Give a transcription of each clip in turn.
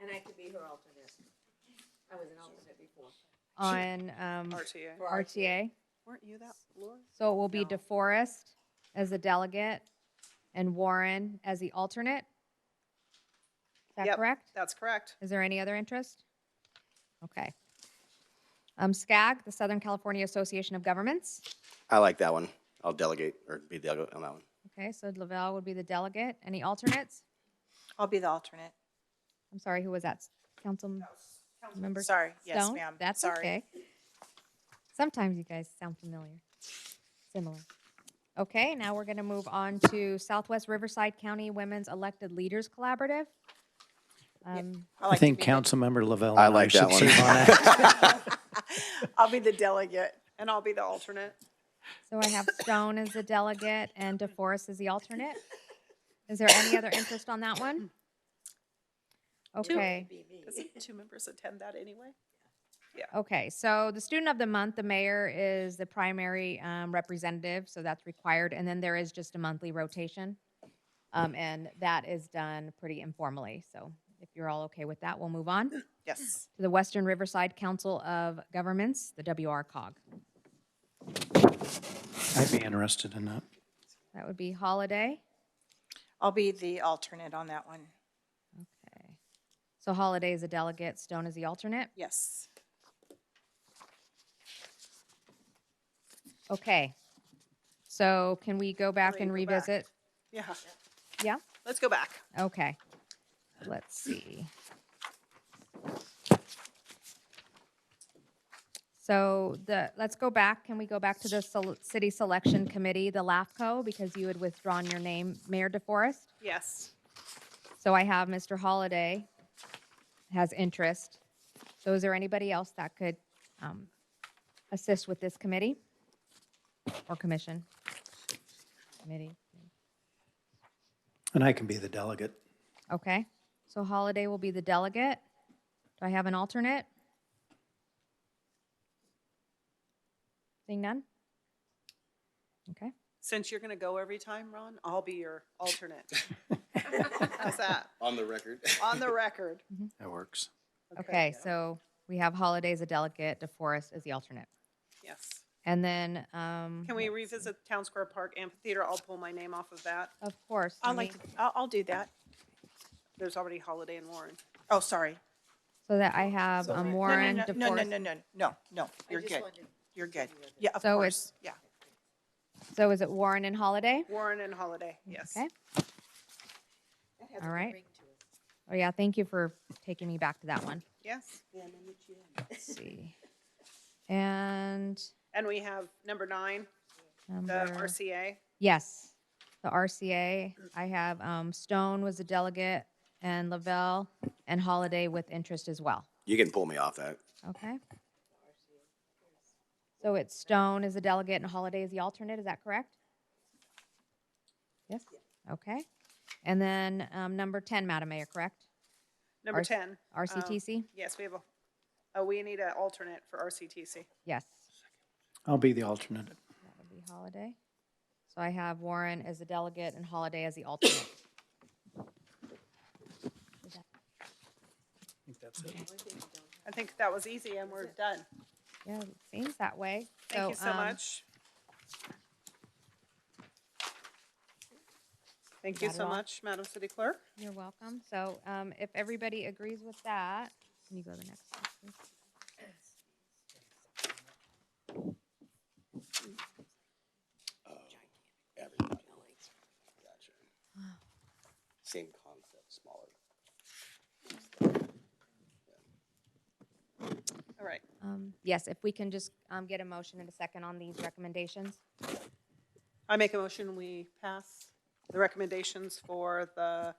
and I could be her alternate. I was an alternate before. on um, RTA. For RTA. Weren't you that, Laura? So it will be No. DeForest as the delegate and Warren as the alternate. Is that Yep. correct? That's correct. Is there any other interest? Okay. Um, SCAG, the Southern California Association of Governments. I like that one. I'll delegate or be delegate on that one. Okay, so Lavelle would be the delegate. Any alternates? I'll be the alternate. I'm sorry, who was that? Council member? Sorry, yes, Stone? ma'am. That's Sorry. okay. Sometimes you guys sound familiar, similar. Okay, now we're going to move on to Southwest Riverside County Women's Elected Leaders Collaborative. Um, I I like to think be the- Councilmember Lavelle. I and like should that one. serve on that. I'll be the delegate. And I'll be the alternate. So I have Stone as the delegate and DeForest as the alternate. Is there any other interest on that one? Okay. Be me. Doesn't two members attend that anyway? Okay, so the student of the month, the mayor is the primary um, representative, so that's required. And then there is just a monthly rotation. Um, And that is done pretty informally. So if you're all okay with that, we'll move on to Yes. the Western Riverside Council of Governments, the WRCOG. I'd be interested in that. That would be Holiday. I'll be the alternate on that one. Okay. So Holiday is a delegate, Stone is the alternate. Yes. Okay. So can we go back Hurry, and go back. revisit? Yeah. Yeah? Let's go back. Okay. Let's see. So the, let's go back. Can we go back to the sel- city selection committee, the LAFCO, because you had withdrawn your name, Mayor DeForest? Yes. So I have Mr. Holliday has interest. So is there anybody else that could um, assist with this committee or commission? Committee, And I can be the delegate. okay. So Holliday will be the delegate. Do I have an alternate? Seeing none? Okay. Since you're going to go every time, Ron, I'll be your alternate. How's that? On the record. On the record. That works. Okay, yeah. so we have Holliday as a delegate, DeForest as the alternate. Yes. And then, um, Can let's we see. revisit Town Square Park Amphitheater? I'll pull my name off of that. Of course. I'll let me- like, to- I'll, I'll do that. There's already Holiday and Warren. Oh, sorry. So that I have So- um, No, no, no, No, no, Warren, no, No, no, no, DeForest. no, no, no, I you're just good. wanted- You're good. Yeah, of So course, yeah. So is it Warren and Holiday? Warren and Holiday, yes. Okay. That has a All good right. ring to it. Oh, yeah, thank you for taking me back to that one. Yes. Let's see. And And we have number nine, the number, RCA. yes, the RCA. I have um, Stone was a delegate and Lavelle and Holiday with interest as well. You can pull me off that. Okay? So it's Stone is the delegate and Holiday is the alternate, is that correct? Yes? Okay. And then um, number 10, Madam Mayor, correct? Number R- 10. um, RCTC? Yes, we have a, oh, we need an alternate for RCTC. Yes, I'll be the alternate. that would be Holiday. So I have Warren as the delegate and Holiday as the alternate. I think that's it. I think that was easy and we're done. Yeah, it seems that way. Thank you so um, much. Thank you Not at so all. much, Madam City Clerk. You're welcome. So um, if everybody agrees with that, can you go to the next slide, please? Uh, Everybody. Gotcha. Same concept, smaller. All right. Um, Yes, if we can just um, get a motion and a second on these recommendations. I make a motion, we pass the recommendations for the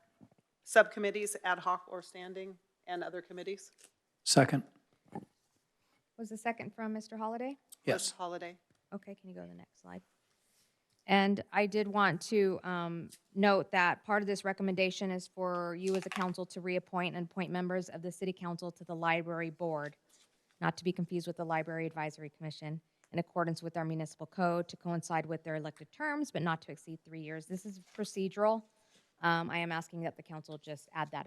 subcommittees, ad hoc or standing, and other committees. Second? Was the second from Mr. Holiday? Liz Yes. Holiday. Okay, can you go to the next slide? And I did want to um, note that part of this recommendation is for you as a council to reappoint and appoint members of the city council to the library board, not to be confused with the Library Advisory Commission, in accordance with our municipal code to coincide with their elected terms, but not to exceed three years. This is procedural. Um, I am asking that the council just add that